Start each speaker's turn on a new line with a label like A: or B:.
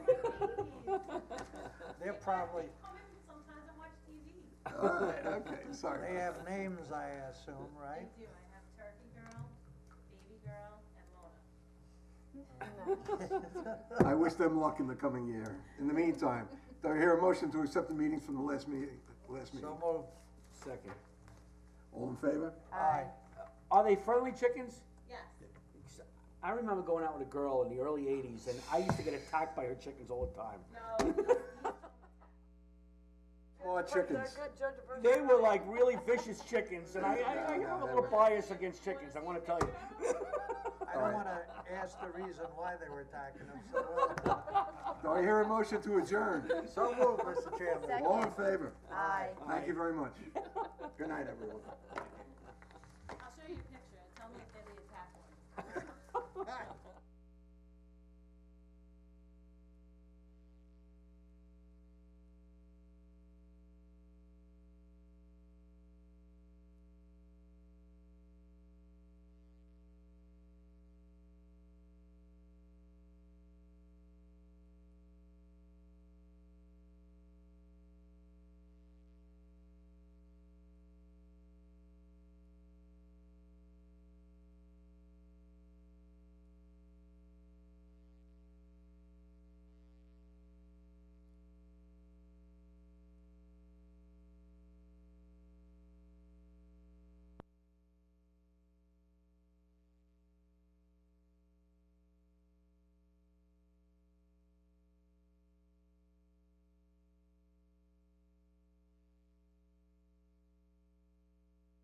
A: probably,
B: Comment sometimes I watch TV.
C: Alright, okay,
A: they
C: sorry.
A: have names, I assume,
B: I
A: right?
B: do, I have Turkey Girl, Baby Girl, and Mona.
C: I wish them luck in the coming year. In the meantime, do I hear a motion to accept the meetings from the last meeting, last meeting?
A: So moved.
D: Second.
C: All in favor?
A: Aye.
D: Are they friendly chickens?
B: Yes,
D: I remember going out with a girl in the early eighties and I used to get attacked by her chickens all the time.
B: no, no,
C: More chickens.
D: They were like really vicious chickens and I, I, I have a little bias against chickens, I wanna tell you.
A: I don't wanna ask the reason why they were attacking them so well.
C: Do I hear a motion to adjourn?
A: So moved, Mr. Chairman.
C: All in favor?
E: Aye.
C: Thank you very much. Good night, everyone.
B: I'll show you a picture, tell me if they're the attack one.